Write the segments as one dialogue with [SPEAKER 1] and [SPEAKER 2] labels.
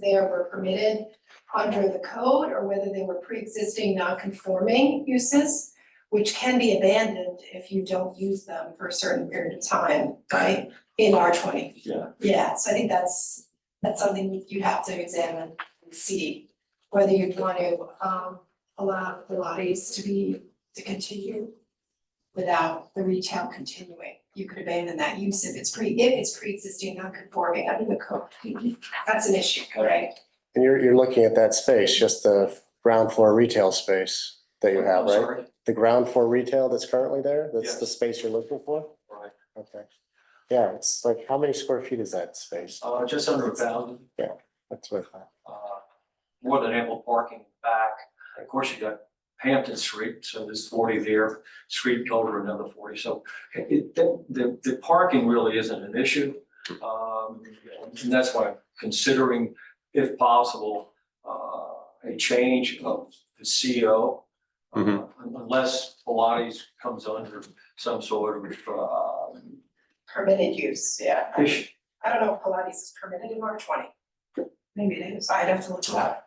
[SPEAKER 1] there were permitted under the code or whether they were pre-existing non-conforming uses, which can be abandoned if you don't use them for a certain period of time, right? In R twenty.
[SPEAKER 2] Yeah.
[SPEAKER 1] Yeah, so I think that's, that's something you'd have to examine and see whether you'd want to, um, allow Pilates to be, to continue without the retail continuing. You could abandon that use if it's pre, if it's pre-existing non-conforming under the code. That's an issue, right?
[SPEAKER 3] And you're, you're looking at that space, just the ground floor retail space that you have,
[SPEAKER 2] I'm
[SPEAKER 3] right?
[SPEAKER 2] sorry.
[SPEAKER 3] The ground floor retail that's currently there, that's
[SPEAKER 2] Yes.
[SPEAKER 3] the space you're looking for?
[SPEAKER 2] Right.
[SPEAKER 3] Okay. Yeah, it's like, how many square feet is that space?
[SPEAKER 2] Uh, just under a thousand,
[SPEAKER 3] That's what I thought.
[SPEAKER 2] uh, more than ample parking back. Of course, you got Hampton Street, so there's forty there, street over another forty, so it- it, the, the, the parking really isn't an issue. Um, and that's why I'm considering, if possible, uh, a change of the CO. uh,
[SPEAKER 4] Mm-hmm.
[SPEAKER 3] Mhm.
[SPEAKER 2] Unless Pilates comes under some sort of, uh,
[SPEAKER 1] Permitted use, yeah.
[SPEAKER 2] issue.
[SPEAKER 1] I don't know if Pilates is permitted in R twenty. Maybe it is, I'd have to look it up.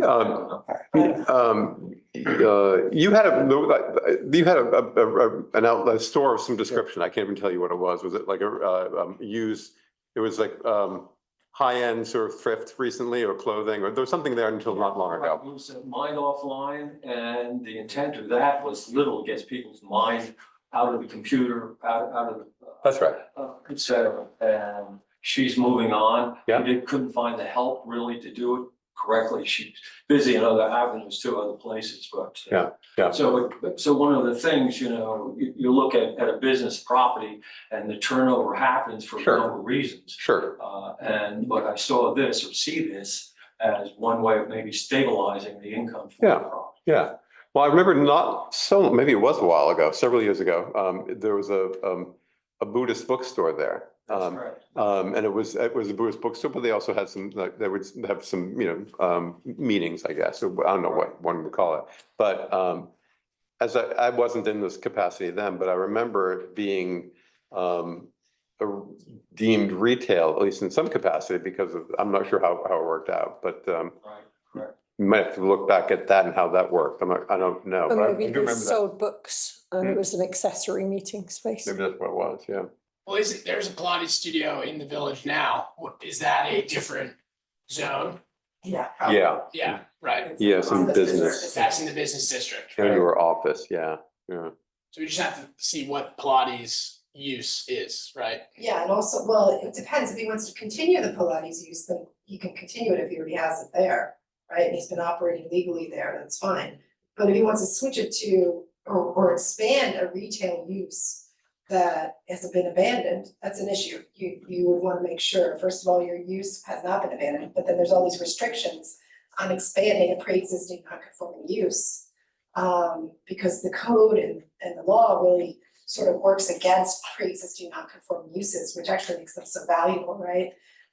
[SPEAKER 3] Uh,
[SPEAKER 4] Um,
[SPEAKER 1] But
[SPEAKER 4] um, uh, you had a, you had a, a, a- an outlet store of some description. I can't even tell you what it was. Was it like a, uh, um, used? It was like, um, high-end sort of thrift recently or clothing, or there was something there until not long
[SPEAKER 2] Right,
[SPEAKER 4] ago.
[SPEAKER 2] we sent mine offline, and the intent of that was little, gets people's mind out of the computer, out, out of. the, uh,
[SPEAKER 4] That's right.
[SPEAKER 2] uh, Et cetera, and she's moving on.
[SPEAKER 4] Yeah.
[SPEAKER 2] We didn't- couldn't find the help really to do it correctly, she's busy in other avenues too, other places, but. uh,
[SPEAKER 4] Yeah, yeah.
[SPEAKER 2] So, it- so one of the things, you know, you, you look at, at a business property, and the turnover happens for a
[SPEAKER 4] Sure.
[SPEAKER 2] number of reasons.
[SPEAKER 4] Sure.
[SPEAKER 2] Uh, and, but I saw this or see this as one way of maybe stabilizing the income for the
[SPEAKER 4] Yeah.
[SPEAKER 2] property.
[SPEAKER 4] Yeah. Well, I remember not so, maybe it was a while ago, several years ago. Um, there was a, um, a Buddhist bookstore there. Um,
[SPEAKER 2] correct.
[SPEAKER 4] Um, and it was, it was a Buddhist bookstore, but they also had some, like, they would have some, you know, um, meetings, I guess, or I don't know what one would call it. But, um, as I, I wasn't in this capacity then, but I remember it being, um, a- deemed retail, at least in some capacity, because of, I'm not sure how, how it worked out, but, um,
[SPEAKER 2] Right.
[SPEAKER 4] you might have to look back at that and how that worked. I'm not, I don't know, but I I
[SPEAKER 5] Or
[SPEAKER 4] do
[SPEAKER 5] maybe they
[SPEAKER 4] remember that. Hmm.
[SPEAKER 5] sold books and it was an accessory meeting space.
[SPEAKER 4] Maybe that's what it was, yeah.
[SPEAKER 6] Well, is it, there's a Pilates studio in the village now. What- Is that a different zone?
[SPEAKER 1] yeah.
[SPEAKER 4] Yeah,
[SPEAKER 6] Yeah, right.
[SPEAKER 4] Yeah, some business.
[SPEAKER 6] That's in the business district.
[SPEAKER 4] and
[SPEAKER 6] right?
[SPEAKER 4] your office, yeah, yeah.
[SPEAKER 6] So we just have to see what Pilates use is, right?
[SPEAKER 1] Yeah, and also, well, it depends, if he wants to continue the Pilates use, then he can continue it if he already has it there, right? And he's been operating legally there, that's fine. But if he wants to switch it to, or, or expand a retail use that has been abandoned, that's an issue. You, you would wanna make sure, first of all, your use has not been abandoned, but then there's all these restrictions on expanding a pre-existing non-conforming use. Um, because the code and, and the law really sort of works against pre-existing non-conforming uses, which actually makes them so valuable, right?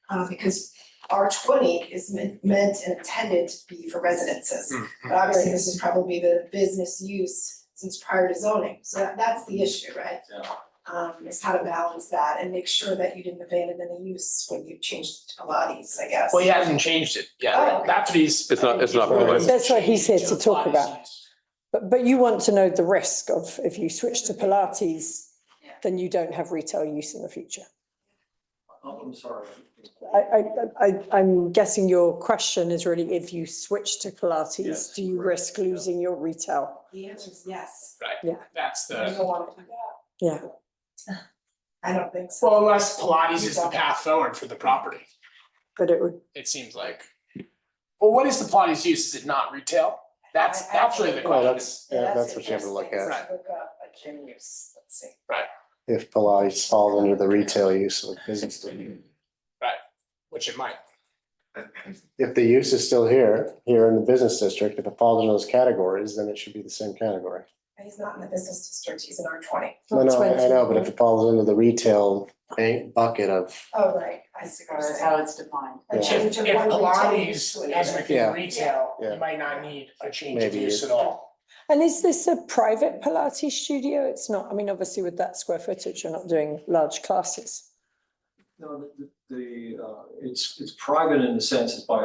[SPEAKER 1] Uh, because R twenty is meant, meant and intended to be for residences. But obviously, this is probably the business use since prior to zoning, so that, that's the issue, right?
[SPEAKER 2] Yeah.
[SPEAKER 1] Um, is how to balance that and make sure that you didn't abandon any use when you changed to Pilates, I guess.
[SPEAKER 6] Well, he hasn't changed it.
[SPEAKER 1] Oh,
[SPEAKER 6] Yeah,
[SPEAKER 1] okay.
[SPEAKER 6] that's what he's.
[SPEAKER 4] It's not- it's not
[SPEAKER 3] Pilates.
[SPEAKER 5] That's what he's here
[SPEAKER 6] Changed
[SPEAKER 5] to talk
[SPEAKER 6] Pilates
[SPEAKER 5] about.
[SPEAKER 6] use.
[SPEAKER 5] But, but you want to know the risk of if you switch to Pilates, then you don't have retail use in the future.
[SPEAKER 2] Oh, I'm sorry.
[SPEAKER 5] I, I, I, I'm guessing your question is really if you switch to Pilates,
[SPEAKER 2] Yes,
[SPEAKER 5] do you
[SPEAKER 2] correct,
[SPEAKER 5] risk
[SPEAKER 2] yeah.
[SPEAKER 5] losing your retail?
[SPEAKER 1] The answer is yes.
[SPEAKER 6] That's
[SPEAKER 1] You
[SPEAKER 6] the,
[SPEAKER 1] don't wanna do that.
[SPEAKER 5] Yeah.
[SPEAKER 1] I don't think so.
[SPEAKER 6] well, unless Pilates is the path forward for the property,
[SPEAKER 5] But it would,
[SPEAKER 6] it seems like. Well, what is the Pilates use? Is it not retail? That's,
[SPEAKER 1] I- I-
[SPEAKER 6] that's really the
[SPEAKER 3] Well,
[SPEAKER 6] question.
[SPEAKER 3] that's, yeah, that's what you have to look
[SPEAKER 1] interesting.
[SPEAKER 3] at.
[SPEAKER 1] Let's Look up a gym use, let's see.
[SPEAKER 3] If Pilates falls under the retail use of a business.
[SPEAKER 6] Which it might.
[SPEAKER 3] If the use is still here, here in the business district, if it falls into those categories, then it should be the same category.
[SPEAKER 1] He's not in the business district, he's in R twenty.
[SPEAKER 3] No, no, I I know, but if
[SPEAKER 5] 20.
[SPEAKER 3] it falls under the retail bank bucket of,
[SPEAKER 1] Oh, right, I see what you're
[SPEAKER 7] That's
[SPEAKER 1] saying.
[SPEAKER 7] how it's defined.
[SPEAKER 1] A
[SPEAKER 3] Yeah.
[SPEAKER 1] change
[SPEAKER 6] If,
[SPEAKER 1] of
[SPEAKER 6] if
[SPEAKER 1] one retail use
[SPEAKER 6] Pilates
[SPEAKER 1] to
[SPEAKER 6] has
[SPEAKER 1] another.
[SPEAKER 3] Yeah.
[SPEAKER 6] within retail,
[SPEAKER 3] Yeah.
[SPEAKER 6] you might not need a change of
[SPEAKER 3] Maybe
[SPEAKER 6] use
[SPEAKER 3] it-
[SPEAKER 6] at all.
[SPEAKER 5] and is this a private Pilates studio? It's not, I mean, obviously with that square footage, you're not doing large classes.
[SPEAKER 2] No, the, the- the, uh, it's, it's private in the sense it's by